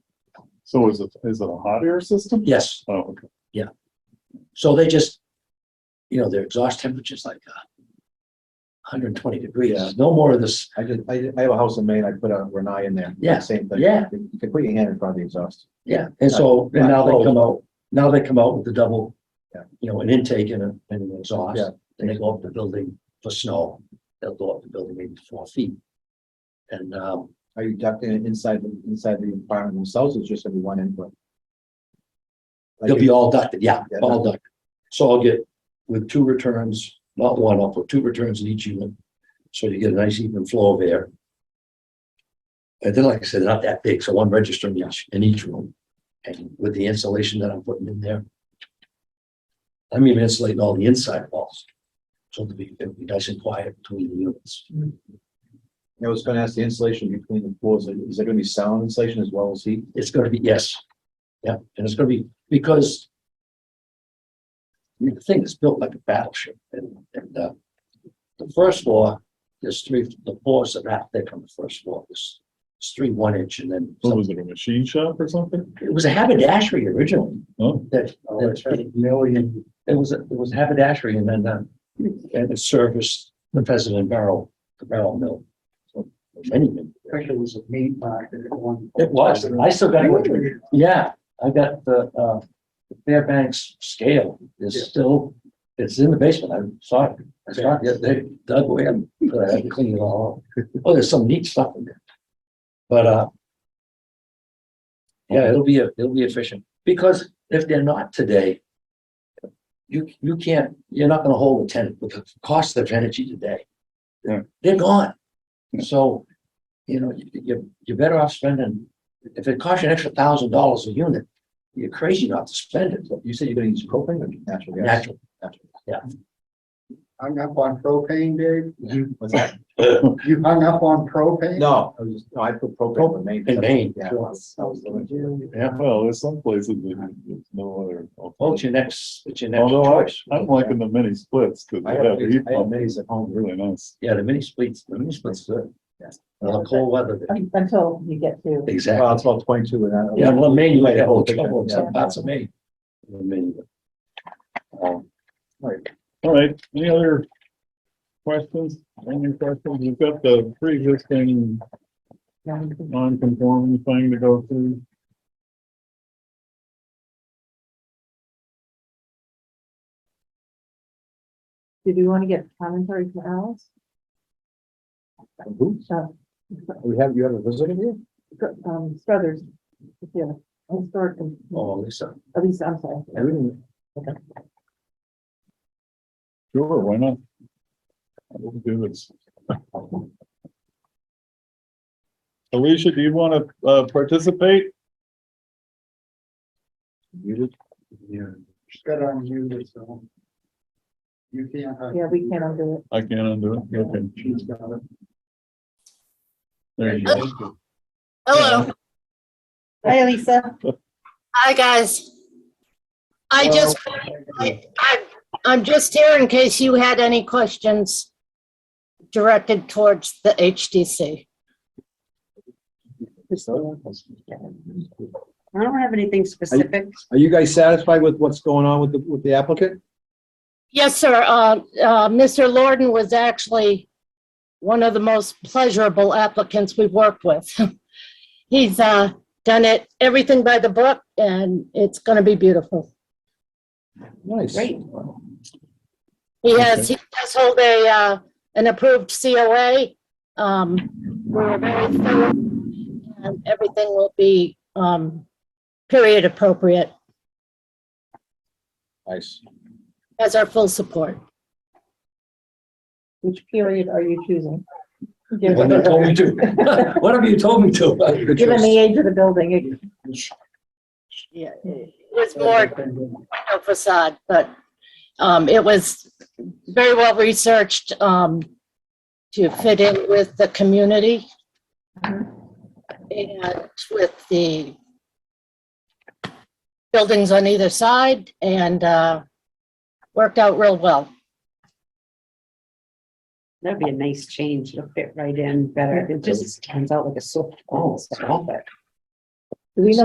So is it, is it a hot air system? Yes, Oh, okay. so they just, you know, their exhaust temperature's like uh, 120 Yeah. degrees, no more of this. I just, I, I have a house in Maine, I put a Renai in there. Yeah, Same thing. yeah. You can put your hand in front of the exhaust. Yeah, and so, and now they come out, now they come out with the double, Yeah. you know, an intake and a- and an Yeah. exhaust. And they go up the building for snow, they'll go up the building maybe four feet. And, um, Are you ducting it inside, the- inside the environment themselves, or it's just gonna be one input? Like They'll if- be all ducted, yeah, Yeah. all ducted. So I'll get with two returns, not one, I'll put two returns in each unit. So you get a nice even flow of air. And then, like I said, they're not that big, so one register in each, in each room. And with the insulation that I'm putting in there. I'm even insulating all the inside walls. So it'll be, it'll be nice and quiet between the units. I was gonna ask the insulation between the floors, is there gonna be sound insulation as well as heat? It's gonna be, yes. Yeah, and it's gonna be, because. I mean, the thing is built like a battleship and, and, uh. The first floor, there's three, the floors are that thick on the first floor, there's, there's three one inch and then. Oh. What was it, a machine shop or something? It was a haberdashery originally Oh, that. that- It was, a- it was haberdashery and then, uh, and it serviced the President Barrel, the barrel mill. for Many, many. Actually, it was a meat market at one. point. It was, I still got it. Yeah, I got the, uh, the Fairbanks scale Yeah. is still, it's in the basement. I saw it. I saw it. Yeah, They dug away and uh, had to clean it all up. Oh, there's some neat stuff in there. But, uh, yeah, it'll be, it'll be efficient because if they're not today, you, you can't, you're not gonna hold a tenant with the cost of energy today. Yeah. They're gone. Yeah. So, you know, you, you- you're better off spending, if it costs you an extra thousand dollars a unit, you're crazy not to spend it, You said you're gonna use propane or natural gas? naturally. Hung up on propane, Dave? What's that? You hung up on propane? No, I was just, no, I put propane in Maine. In Maine. Yeah. I was- I was living- Yeah, well, there's some places that there's no other. well, it's your next, it's your next Although I, choice. I'm liking the mini splits because I they have, have heat I have pump, minis at home. really nice. Yeah, the mini splits, the mini splits, good. Yes. And the cold weather, Until you get to. exactly. Well, it's about twenty-two and that. Yeah, well, Maine, you might have a little trouble in Yeah. some parts of Maine. In Maine. Um, All right, any other questions? Any questions? You've got the pre-existing non-conforming thing to go through. Did we want to get commentary from Alice? Who? Uh, We have, you have a visitor here? Um, Struthers, yeah, historic, Oh, Lisa, at least, I'm sorry. I didn't- Sure, why not? We'll do this. Alicia, do you want to uh, participate? Just got on you, so. You can't. hug- Yeah, we can't undo it. I can't undo it. Okay. She's got it. There you go. Hello. Hi, Lisa. Hi, guys. I just, I, I- I'm just here in case you had any questions directed towards the HDC. I don't have anything specific. Are you guys satisfied with what's going on with the, with the applicant? Yes, sir. Uh, uh, Mr. Lorden was actually one of the most pleasurable applicants we've worked with. He's, uh, done it, everything by the book, and it's gonna be beautiful. Nice. Great. He has, he does hold a, uh, an approved COA. Um, we're very thorough and everything will be, um, period appropriate. Nice. Has our full support. Which period are you choosing? what have you told me to? What have you told me to? Given the age of the building, it- Yeah. It was more window facade, but, um, it was very well researched, um, to fit in with the community and with the buildings on either side and, uh, worked out real well. That'd be a nice change. It'll fit right in better. It just stands out like a sore thumb. Oh, stop it. do we know